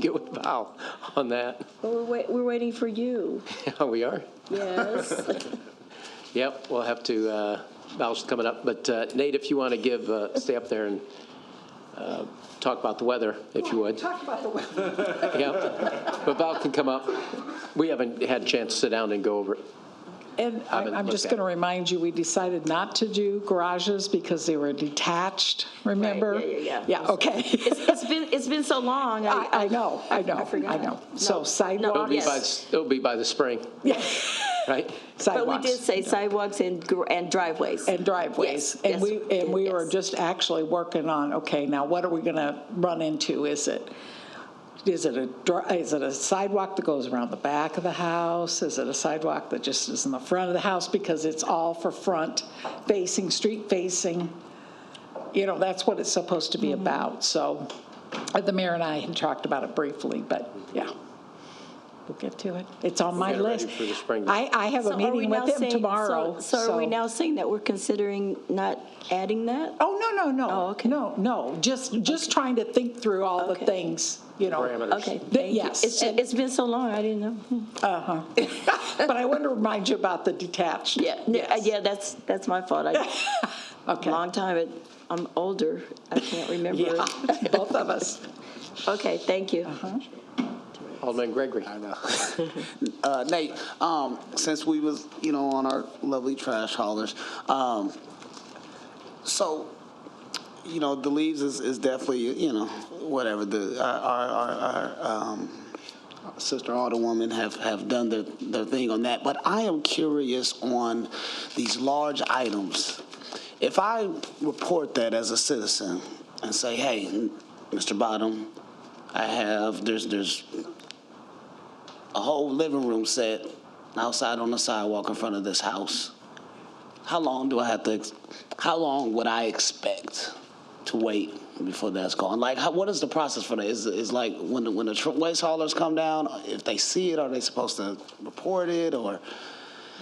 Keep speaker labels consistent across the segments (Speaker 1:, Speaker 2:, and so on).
Speaker 1: get with Val on that.
Speaker 2: Well, we're wait, we're waiting for you.
Speaker 1: Yeah, we are.
Speaker 2: Yes.
Speaker 1: Yep, we'll have to, uh, Val's coming up, but uh, Nate, if you want to give, uh, stay up there and uh, talk about the weather, if you would. Talk about the weather. Yep, but Val can come up. We haven't had a chance to sit down and go over it.
Speaker 3: And I-
Speaker 1: haven't
Speaker 3: I'm
Speaker 1: looked
Speaker 3: just
Speaker 1: at
Speaker 3: going to
Speaker 1: it.
Speaker 3: remind you, we decided not to do garages because they were detached, remember?
Speaker 2: yeah, yeah, yeah.
Speaker 3: okay.
Speaker 2: It's, it's been, it's been so long.
Speaker 3: I, I know, I know, I
Speaker 2: forgot.
Speaker 3: know.
Speaker 1: It'll
Speaker 3: So
Speaker 1: be
Speaker 3: sidewalks,
Speaker 1: by,
Speaker 2: Yes.
Speaker 1: it'll be by the spring,
Speaker 3: yeah,
Speaker 1: right?
Speaker 2: But we did
Speaker 3: sidewalks
Speaker 2: say sidewalks and, gr- and driveways.
Speaker 3: and driveways.
Speaker 2: Yes,
Speaker 3: And
Speaker 2: yes,
Speaker 3: we, and we were
Speaker 2: yes.
Speaker 3: just actually working on, okay, now what are we going to run into? Is it, is it a, dri- is it a sidewalk that goes around the back of the house? Is it a sidewalk that just is in the front of the house? Because it's all for front facing, street facing. you know, that's what it's supposed to be
Speaker 2: Mm-hmm.
Speaker 3: about. So uh, the mayor and I had talked about it briefly, but yeah. We'll get to it. It's on my
Speaker 1: get it ready
Speaker 3: list.
Speaker 1: for the spring.
Speaker 3: I, I have
Speaker 2: So
Speaker 3: a
Speaker 2: are we
Speaker 3: meeting
Speaker 2: now
Speaker 3: with him
Speaker 2: saying- so-
Speaker 3: tomorrow.
Speaker 2: So are we now saying that we're considering not adding that?
Speaker 3: Oh, no, no, no.
Speaker 2: Oh, okay.
Speaker 3: No, no, just, just trying to think through all the
Speaker 2: Okay.
Speaker 3: things, you know.
Speaker 1: Parameters.
Speaker 2: Okay,
Speaker 1: Th-
Speaker 2: thank you.
Speaker 3: yes.
Speaker 2: It's, it's been so long, I didn't know.
Speaker 3: But I wanted to remind you about the detached.
Speaker 2: Yeah, yeah,
Speaker 3: Yes.
Speaker 2: yeah, that's, that's my fault. I,
Speaker 3: Okay.
Speaker 2: long time, it- I'm older, I can't remember.
Speaker 3: Yeah, Uh-huh.
Speaker 2: it.
Speaker 3: both of us.
Speaker 2: Okay, thank you.
Speaker 1: Alderman Gregory.
Speaker 4: uh, Nate, um, since we was, you know, on our lovely trash haulers, um, so, you know, the leaves is, is definitely, you know, whatever the, our, our, our, our um, Sister Alderwoman have, have done their, their thing on that, but I am curious on these large items. If I report that as a citizen and say, hey, Mr. Bottom, I have, there's, there's a whole living room set outside on the sidewalk in front of this house. How long do I have to, ex- how long would I expect to wait before that's gone? Like, how, what is the process for that? Is, is like when, the- when the tr- waste haulers come down, if they see it, are they supposed to report it or?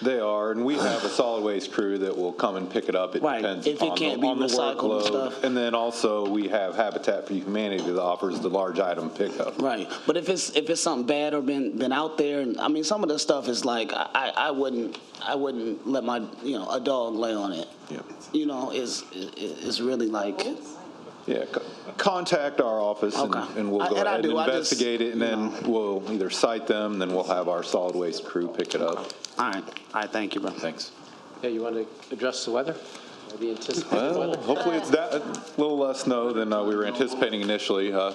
Speaker 5: They are, and we have a solid waste crew that will come and pick it up. It
Speaker 4: Right,
Speaker 5: depends
Speaker 4: if it
Speaker 5: upon the-
Speaker 4: can't be
Speaker 5: on the
Speaker 4: recycled and
Speaker 5: workload.
Speaker 4: stuff.
Speaker 5: And then also, we have Habitat for Humanity that offers the large item pickup.
Speaker 4: Right, but if it's if it's something bad or been been out there, and I mean some of the stuff is like I, I I wouldn't I wouldn't let my you know a dog lay on it.
Speaker 5: Yep.
Speaker 4: You know, is is really like.
Speaker 5: Yeah, co- contact our office and
Speaker 4: Okay.
Speaker 5: and we'll
Speaker 4: I-
Speaker 5: go
Speaker 4: and I
Speaker 5: ahead and
Speaker 4: do, I just,
Speaker 5: investigate it, and
Speaker 4: you
Speaker 5: then we'll either cite them, then we'll have our solid waste crew pick it up.
Speaker 4: All right, all right, thank you, bro.
Speaker 5: Thanks.
Speaker 1: Yeah, you want to address the weather? Or The anticipated
Speaker 5: Well,
Speaker 1: weather?
Speaker 5: hopefully it's that, a little less snow than uh, we were anticipating initially. Uh,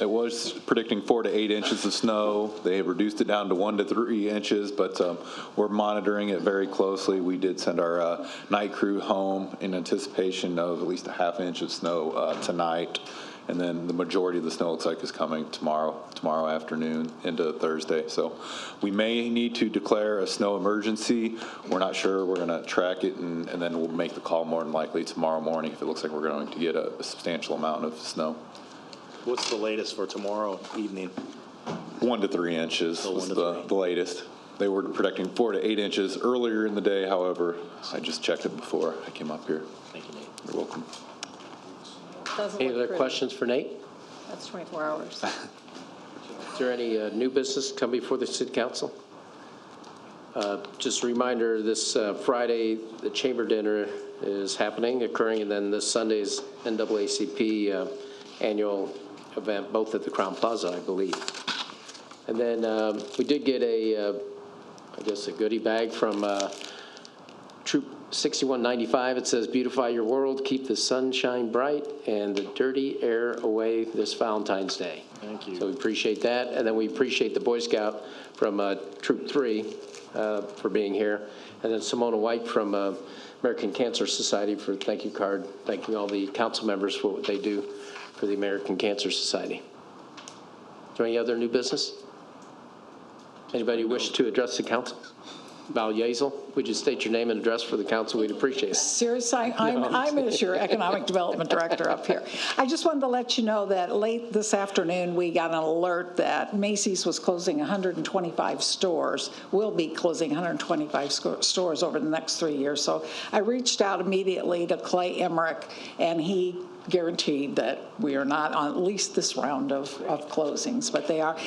Speaker 5: It was predicting four to eight inches of snow. They have reduced it down to one to three inches, but um, we're monitoring it very closely. We did send our uh, night crew home in anticipation of at least a half inch of snow uh, tonight. And then the majority of the snow looks like is coming tomorrow, tomorrow afternoon into Thursday. So we may need to declare a snow emergency. We're not sure. We're going to track it and, and then we'll make the call more than likely tomorrow morning if it looks like we're going to get a, a substantial amount of snow.
Speaker 6: What's the latest for tomorrow evening?
Speaker 5: One to three inches
Speaker 6: So
Speaker 5: was
Speaker 6: one to
Speaker 5: the,
Speaker 6: three.
Speaker 5: the latest. They were predicting four to eight inches earlier in the day. However, I just checked it before I came up here.
Speaker 6: Thank you, Nate.
Speaker 5: You're welcome.
Speaker 1: Any other questions for Nate?
Speaker 3: That's 24 hours.
Speaker 1: Is there any uh, new business come before the city council? Uh, Just a reminder, this uh, Friday, the chamber dinner is happening, occurring, and then this Sunday's NAACP uh, annual event, both at the Crown Plaza, I believe. And then um, we did get a, uh, I guess, a goodie bag from uh, Troop 6195. It says, "Beautify your world, keep the sunshine bright and the dirty air away this Valentine's Day." Thank you. So we appreciate that, and then we appreciate the Boy Scout from uh, Troop 3 uh, for being here, and then Simona White from uh, American Cancer Society for thank you card, thanking all the council members for what they do for the American Cancer Society. Is there any other new business? Anybody wish to address the council? Val Yazel, would you state your name and address for the council? We'd appreciate it.
Speaker 3: Seriously, I'm, I'm as your Economic Development Director up here. I just wanted to let you know that late this afternoon, we got an alert that Macy's was closing 125 stores, will be closing 125 sco- stores over the next three years. So I reached out immediately to Clay Emmerich, and he guaranteed that we are not on at least this round of, of closings, but they are.